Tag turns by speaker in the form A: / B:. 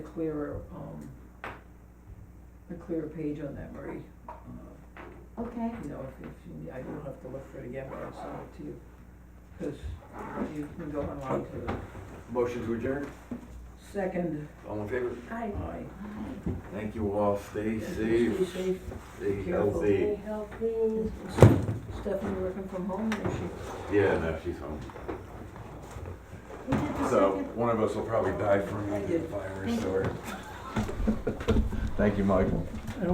A: a clearer, um, a clearer page on that, Marie. Uh,
B: Okay,
A: You know, if, if, you need- I don't have to look for it again, but I'll send it to you, cause you can go online to the
C: Motion to adjourn?
A: second,
C: All in favor?
B: I,
A: aye.
C: Thank you all. Stay
A: Be
C: safe,
A: safe,
C: stay
A: Careful.
C: healthy.
B: stay healthy.
A: Stephanie working from home, or is she?
C: Yeah, no, she's home.
B: Who did the
D: So
B: second?
D: one of us will probably die from the virus or. Thank you, Michael.